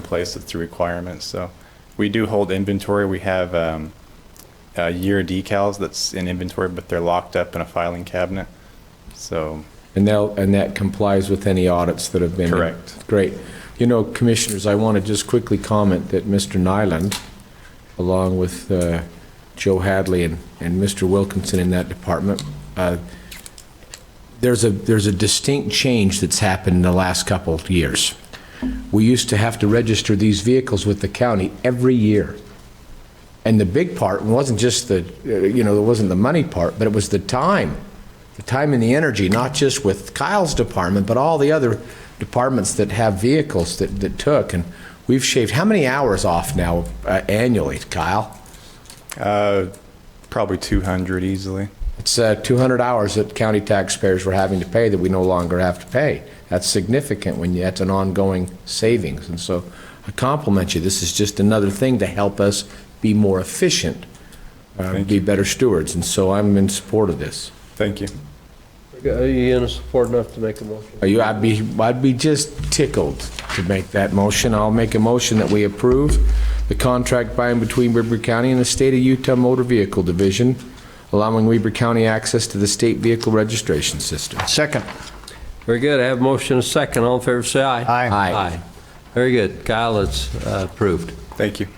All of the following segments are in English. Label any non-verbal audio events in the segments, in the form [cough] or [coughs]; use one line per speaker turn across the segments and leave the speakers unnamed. place that's the requirement, so. We do hold inventory, we have, um, uh, year decals that's in inventory, but they're locked up in a filing cabinet, so.
And they'll, and that complies with any audits that have been?
Correct.
Great. You know, Commissioners, I want to just quickly comment that Mr. Nyland, along with uh, Joe Hadley and, and Mr. Wilkinson in that department, uh, there's a, there's a distinct change that's happened in the last couple of years. We used to have to register these vehicles with the county every year. And the big part wasn't just the, uh, you know, it wasn't the money part, but it was the time, the time and the energy, not just with Kyle's department, but all the other departments that have vehicles that, that took. And we've shaved, how many hours off now uh, annually, Kyle?
Uh, probably 200 easily.
It's uh, 200 hours that county taxpayers were having to pay that we no longer have to pay. That's significant when you, that's an ongoing savings. And so I compliment you. This is just another thing to help us be more efficient, uh, be better stewards. And so I'm in support of this.
Thank you.
Are you in support enough to make a motion?
Are you, I'd be, I'd be just tickled to make that motion. I'll make a motion that we approve the contract by and between Weber County and the State of Utah Motor Vehicle Division, allowing Weber County access to the state vehicle registration system.
Second.
Very good, I have a motion and a second, all in favor say aye.
Aye.
Aye.
Very good, Kyle, it's uh, approved.
Thank you.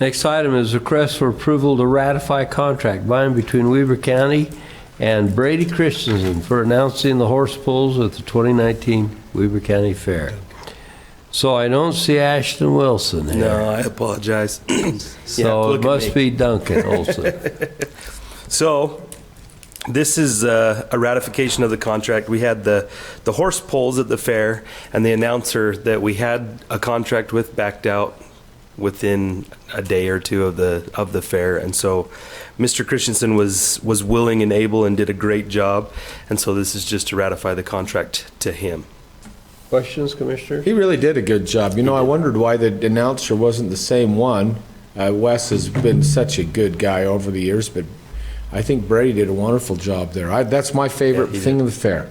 Next item is request for approval to ratify contract binding between Weaver County and Brady Christensen for announcing the horse pulls at the 2019 Weaver County Fair. So I don't see Ashton Wilson here.
No, I apologize. [clears throat]
So it
look at me.
must be Duncan Olson.
So, this is uh, a ratification of the contract. We had the, the horse polls at the fair, and the announcer that we had a contract with backed out within a day or two of the of the fair, and so Mr. Christensen was was willing and able and did a great job, and so this is just to ratify the contract to him.
[laughs] Questions, Commissioner?
He really did a good job. You know, I wondered why the announcer wasn't the same one. Uh, Wes has been such a good guy over the years, but I think Brady did a wonderful job there. I, that's my favorite thing of the fair.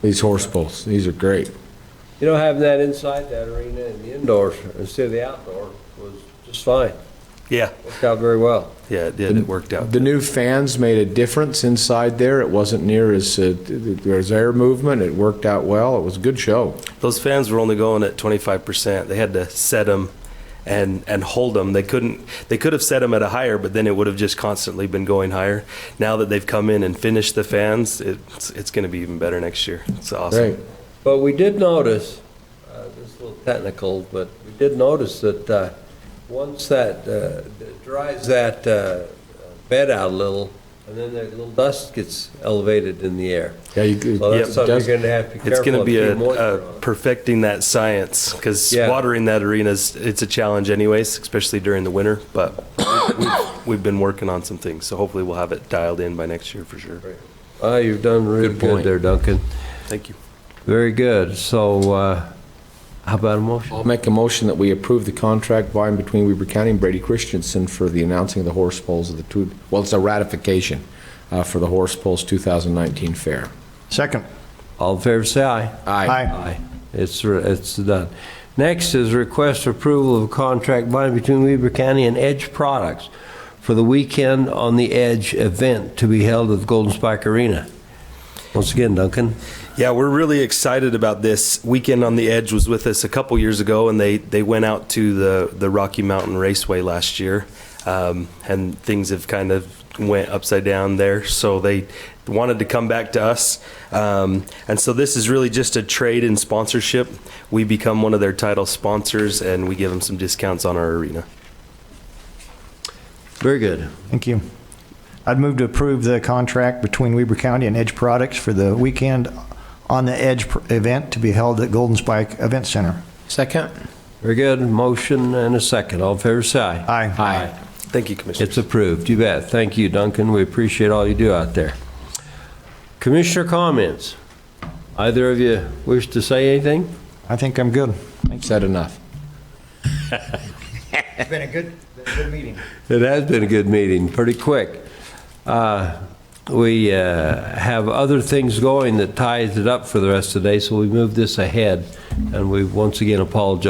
These horse bulls, these are great.
You know, having that inside that arena and the indoors instead of the outdoor was just fine.
Yeah,
Worked out very well.
yeah, it did. It worked out.
The new fans made a difference inside there. It wasn't near as uh, there was air movement. It worked out well. It was a good show.
those fans were only going at 25%. They had to set them and and hold them. They couldn't they could have set them at a higher, but then it would have just constantly been going higher. Now that they've come in and finished the fans, it's it's going to be even better next year. It's awesome.
Great.
But we did notice, uh, this is a little technical, but we did notice that uh, once that uh, dries that uh, bed out a little, and then that little dust gets elevated in the air.
Yeah, you,
So that's
it
something
does-
you're going to have to be
It's
careful
going to
of,
be
keep
a, uh,
moisture
a
on.
perfecting that science because
Yeah.
watering that arena is it's a challenge anyways, especially during the winter. But [coughs] we've, we've been working on some things, so hopefully we'll have it dialed in by next year for sure.
Ah, you've done really
Good
good
point.
there, Duncan.
Thank you.
Very good. So uh, how about a motion?
I'll make a motion that we approve the contract by and between Weber County and Brady Christensen for the announcing of the horse polls of the two, well, it's a ratification uh, for the horse polls 2019 fair.
Second.
All in favor, say aye.
Aye.
Aye. It's, re- it's done. Next is request approval of a contract binding between Weber County and Edge Products for the Weekend on the Edge event to be held at the Golden Spike Arena. Once again, Duncan.
Yeah, we're really excited about this. Weekend on the Edge was with us a couple years ago, and they, they went out to the, the Rocky Mountain Raceway last year, um, and things have kind of went upside down there. So they wanted to come back to us, um, and so this is really just a trade in sponsorship. We become one of their title sponsors, and we give them some discounts on our arena.
Very good.
Thank you. I'd move to approve the contract between Weber County and Edge Products for the Weekend on the Edge pr- event to be held at Golden Spike Event Center.
Second?
Very good. Motion and a second. All in favor, say aye.
Aye.
Aye.
Thank you, Commissioner.
It's approved. You bet. Thank you, Duncan. We appreciate all you do out there. Commissioner comments? Either of you wish to say anything?
I think I'm good.
Said enough.
It's been a good, good meeting.
It has been a good meeting, pretty quick. Uh, We uh, have other things going that ties it up for the rest of the day, so we moved this ahead, and we once again apologize